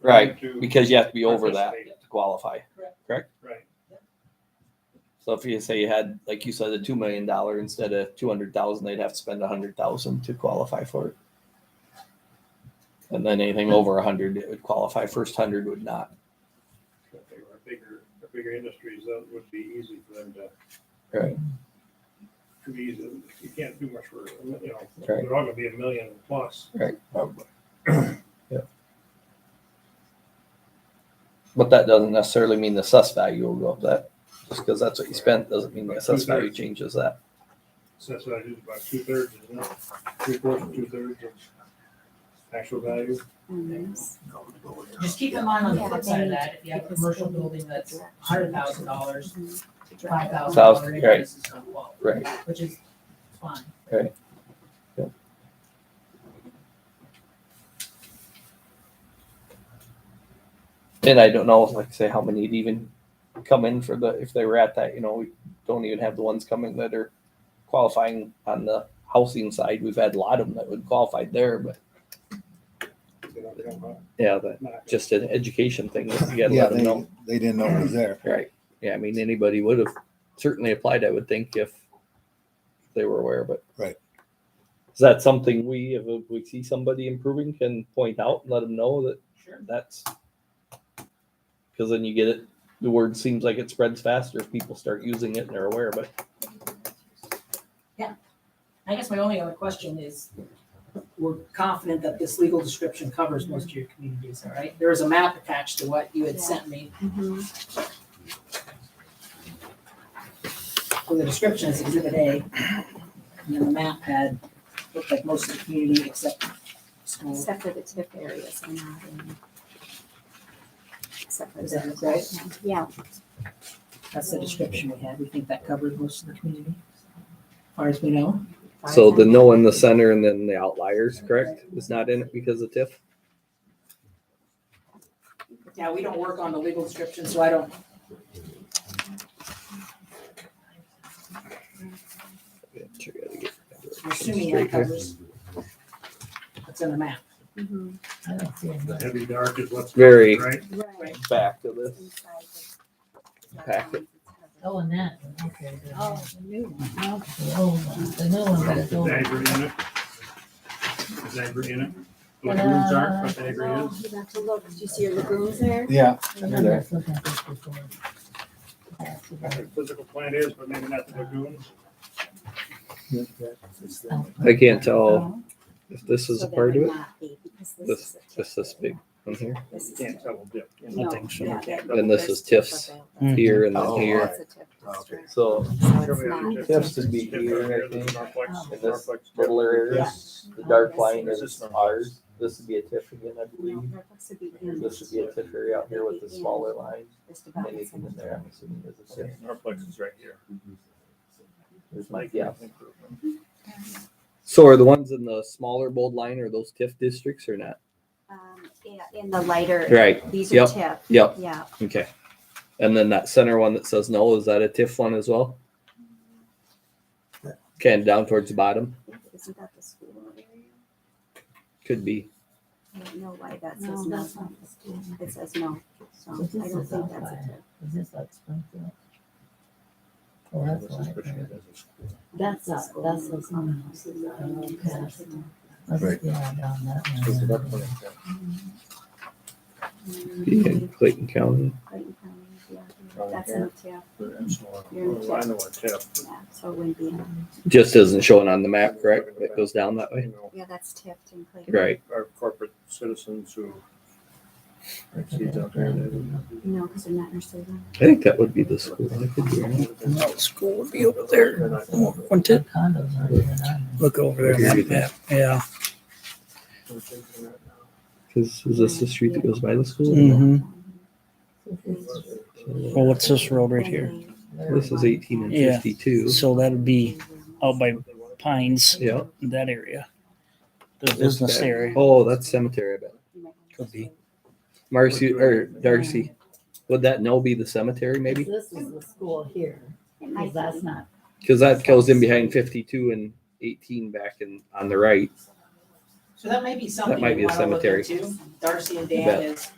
Right, to- because you have to be over that Participate. to qualify, correct? Right. So if you say you had, like you said, a two million dollar instead of two hundred thousand, they'd have to spend a hundred thousand to qualify for it. And then anything over a hundred, it would qualify. First hundred would not. If they were Bigger, bigger industries, that would be easy for them to. Right. Too easy, you can't do much for, you know, Right. they're all gonna be a million plus. Right. But that doesn't necessarily mean the assessed value will go up that, just because that's what you spent doesn't mean the assessed value changes that. So that's what I do, about two thirds, isn't it? Three quarters, two thirds of actual value. Just keep in mind on the Yeah, flip they side of need that, if you have a because commercial they need building that's hundred thousand dollars, five thousand Thousand, dollar right. increase is not well, Right. which is fine. And I don't know, like I say, how many'd even come in for the, if they were at that, you know, we don't even have the ones coming that are qualifying on the housing side. We've had a lot of them that would qualify there, but They don't come up, yeah, that not- just an education thing. You gotta Yeah, let them they, know. they didn't know it was there. Right. Yeah, I mean, anybody would have certainly applied, I would think, if they were aware, but. Right. Is that something we, if we see somebody improving, can point out and let them know that Sure. that's. Because then you get it, the word seems like it spreads faster if people start using it and they're aware, but I guess my only other question is, we're confident that this legal description covers most of your communities, all right? There is a map attached to what you had sent me, Mm-hmm. where the description is exhibit A. And then the map had, looked like most of the community except schools. Except for the tip areas are not in. Except for Is that those. right? Yeah, That's the description we had. We think that covers most of the community, as far as we know. So the no in the center and then the outliers, correct? Is not in it because of TIF? Yeah, we don't work on the legal description, so I don't. I'm assuming that covers what's in the map. mhm, The heavy dark is what's. Very- Right, right. Back to this. Inside the- Packet. Oh, and that, okay. the- Oh, the new one, okay. The old one, the new one, Is that's old. Niagara in it? Is Niagara in it? Those rooms aren't, but Niagara Oh, is. you have to look, did you see your lagoons there? Yeah, I'm just looking at this before. I think Physical plant is, but maybe not the lagoons. I can't tell if this is a part of it, it? This- just this big one here, This is Can't tip. tell the dip. No, yeah, that- And this is there's TIFs. tip available. here and Oh, then here. That's a tip district. So So it's Probably not- Oh. other dip. Tips would be Dip here, over I here, think. Norplex- And Norplex this dip. little area, the dark line is ours. This would be a TIF again, I No, believe. Fairfax would be in This would be a TIF area out here with the smaller line. just about the Anything same. in there, I'm assuming is a TIF. Norplex is right here. There's my, Like yeah. improvement. So are the ones in the smaller bold line, are those TIF districts or not? Um, yeah, In the lighter, Right, these Yep. are tip, yep, yeah. okay. And then that center one that says no, is that a TIF one as well? Okay, and down towards the bottom, Isn't that the school area? could be. I don't know why that says No, no. that's not the school. It says no, so So this I don't is think that's a outside. tip. Is this like Springfield? Oh, that's why. That's not, that's um, what's on. Right. Yeah, down that one. Yeah, Clayton County. Clayton County, yeah, Right that's here. in tip, Well, I know what tip. yeah, so it wouldn't be, in- Just isn't showing on the map, correct? It goes down that way. You know, yeah, that's tipped in Clayton. Right. Our corporate citizens who. exceeds out there. No, because they're not nursery rhyme. I think that would be the school. I could be wrong. No, school would be over there, wouldn't it? Condos aren't even on there. Look over there, on the map. yeah. Cause is this the street that goes by the school? Mm-hmm. This is- Well, what's this road right here? This is eighteen and Yeah. fifty-two. So that would be out by Pines, Yeah. that area. The business Okay. area. Oh, that's cemetery, I bet. Could be. Marcy, or Darcy, would that no be the cemetery maybe? This is the school here, It because might that's be. not, Cause that goes in behind fifty-two and eighteen back and on the right. So that may be something might be a you want to look cemetery. into. Darcy and You Dan bet. is